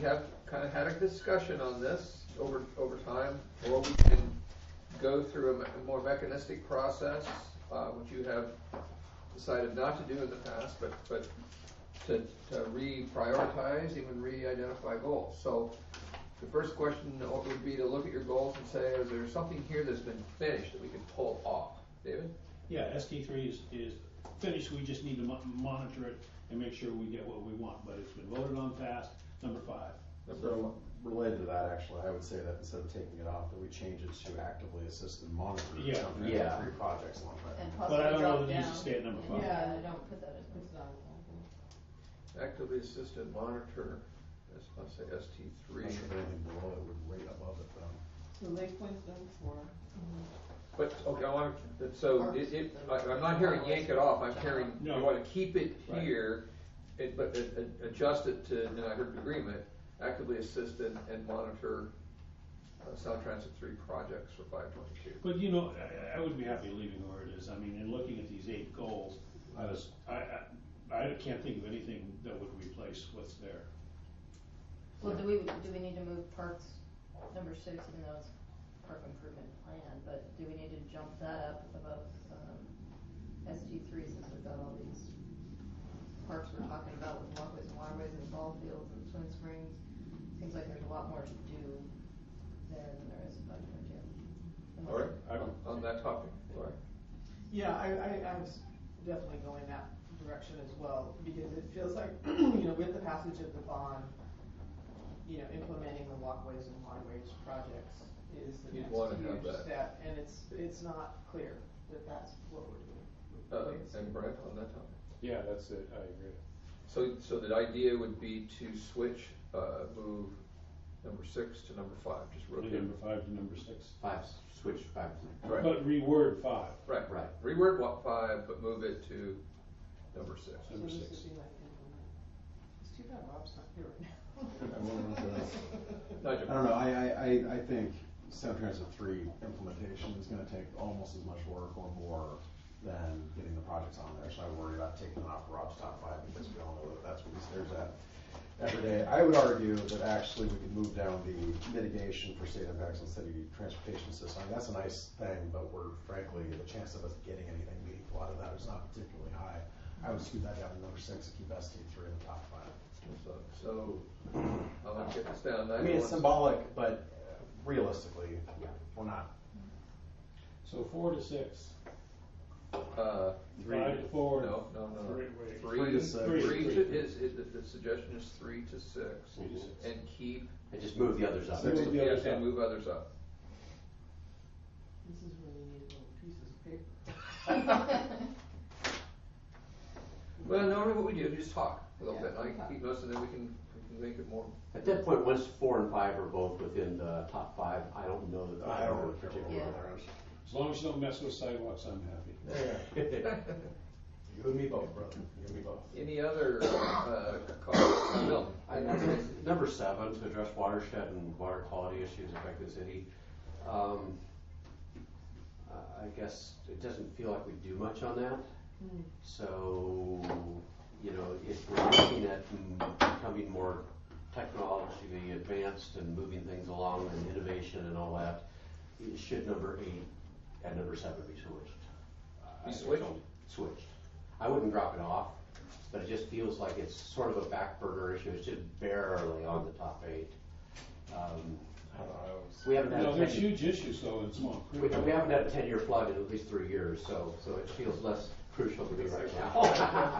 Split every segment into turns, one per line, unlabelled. we have kind of had a discussion on this over, over time, or we can go through a me- a more mechanistic process, uh, which you have decided not to do in the past, but, but to, to reprioritize, even re-identify goals. So the first question would be to look at your goals and say, is there something here that's been finished that we can pull off? David?
Yeah, ST three is, is finished, we just need to mo- monitor it and make sure we get what we want, but it's been voted on fast, number five.
So related to that, actually, I would say that instead of taking it off, that we change it to actively assist and monitor.
Yeah.
something,
Yeah.
Three projects along that.
And
But I
possibly
don't know
drop
that it needs to
down.
stay at number five.
Yeah, I don't put that as number five.
Actively assisted monitor, let's not say ST
I'm
three.
not sure if anything below it would rate above it though.
So Lake Point's number four.
But, okay, I want to, so it, it, I- I'm not hearing yank it off, I'm hearing, you
No.
want to keep it
Right.
here, it- but a- a- adjust it to, and I heard agreement, actively assist and, and monitor uh, Sound Transit three projects for five twenty-two.
But you know, I, I would be happy leaving where it is, I mean, in looking at these eight goals, I was, I, I, I can't think of anything that would replace what's there.
Well, do we, do we need to move parks, number six, even though it's park improvement plan, but do we need to jump that up above, um, SG three since we've got all these parks we're talking about with walkways and waterways and ball fields and swim springs? Seems like there's a lot more to do there than there is in five twenty-two.
All right,
I-
Um,
on- on that topic, all right.
Yeah, I, I, I was definitely going that direction as well, because it feels like, you know, with the passage of the bond, you know, implementing the walkways and waterways projects is the
You'd
next
wanna have
huge
that.
step, and it's, it's not clear that that's what we're doing. with
Uh,
ways.
and Brent on that topic.
Yeah, that's it, I agree.
So, so the idea would be to switch, uh, move number six to number five, just
From
rotate.
Number five to number six,
Five, switch five to six.
Right.
but reword five,
Right,
Right.
reword what five, but move it to number six.
So
number
this would
six.
be like implement. It's too bad Rob's not here right
I wonder if that's-
now.
Nigel?
I don't know, I, I, I, I think Sound Transit three implementation is gonna take almost as much work or more than getting the projects on there, so I worry about taking it off Rob's top five, because we all know that that's what he stares at every day. I would argue that actually we could move down the mitigation for state impacts on city transportation system, that's a nice thing, but we're frankly, the chance of us getting anything meaningful out of that is not particularly high. I would scoot that down to number six and keep ST three in the top five.
So, so, I'm gonna get this down,
I mean,
ninety-one.
it's symbolic, but uh, realistically, we're not.
So four to six,
Uh,
five to four.
no, no, no, no.
wait.
Three,
Three to six.
three
Three.
to, is, is, the- the suggestion is three to six,
Three to six.
and keep,
I just moved the others up.
Six.
Move the others
yeah, and
up.
move others up.
This is where you need little pieces of paper.
Well, normally what we do is just talk a little bit,
Yeah,
I can
okay.
keep most of them, we can, we can make it more,
At that point, once four and five are both within the top five, I don't know that.
I don't really care what
Yeah.
we're on.
As long as you don't mess with sidewalks, I'm happy.
You and me both, brother. You and me both.
any other, uh, comments? Bill?
I- I- Number seven, to address watershed and water quality issues affecting the city. Um, I I guess it doesn't feel like we do much on that.
Hmm.
So, you know, if we're looking at m- becoming more technologically advanced and moving things along and innovation and all that, it should number eight and number seven be switched? I- I
Be switched?
don't- Switched. I wouldn't drop it off, but it just feels like it's sort of a back burner issue. It's just barely on the top eight. Um,
I don't know, I always-
We haven't had.
No,
a
there's
ten-
huge issues though in Swamp
we,
Creek.
we haven't had a ten-year flood in at least three years, so, so it feels less crucial to me right now.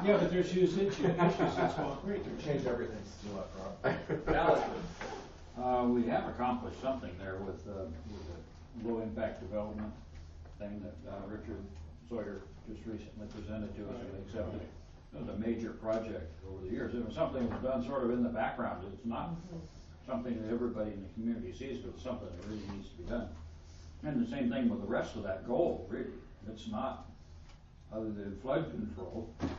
Yeah, but there's huge issues, issues in Swamp Creek.
We Change everything to do left, Rob.
Alex?
Uh, we have accomplished something there with, uh, with the low impact development thing that, uh, Richard Sawyer just recently presented to us and accepted. It was a major project over the years. It was something that was done sort of in the background. It's not something that everybody in the community sees, but it's something that really needs to be done. And the same thing with the rest of that goal, really. It's not, other than flood control.
I mean,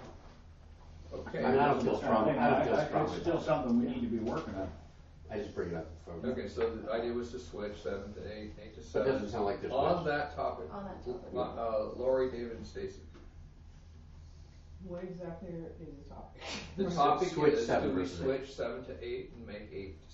Okay,
I don't feel strongly, I don't feel strongly.
It's still
about
something we need to be working on.
it. I just bring it up. for-
okay, so the idea was to switch seven to eight, eight to
That
seven.
doesn't sound like this.
On
much.
that topic,
On that topic.
uh, Lori, David, and Stacy.
What exactly is the topic?
The
Right.
topic
Switch
is, do
seven
we
versus eight.
switch seven to eight and make eight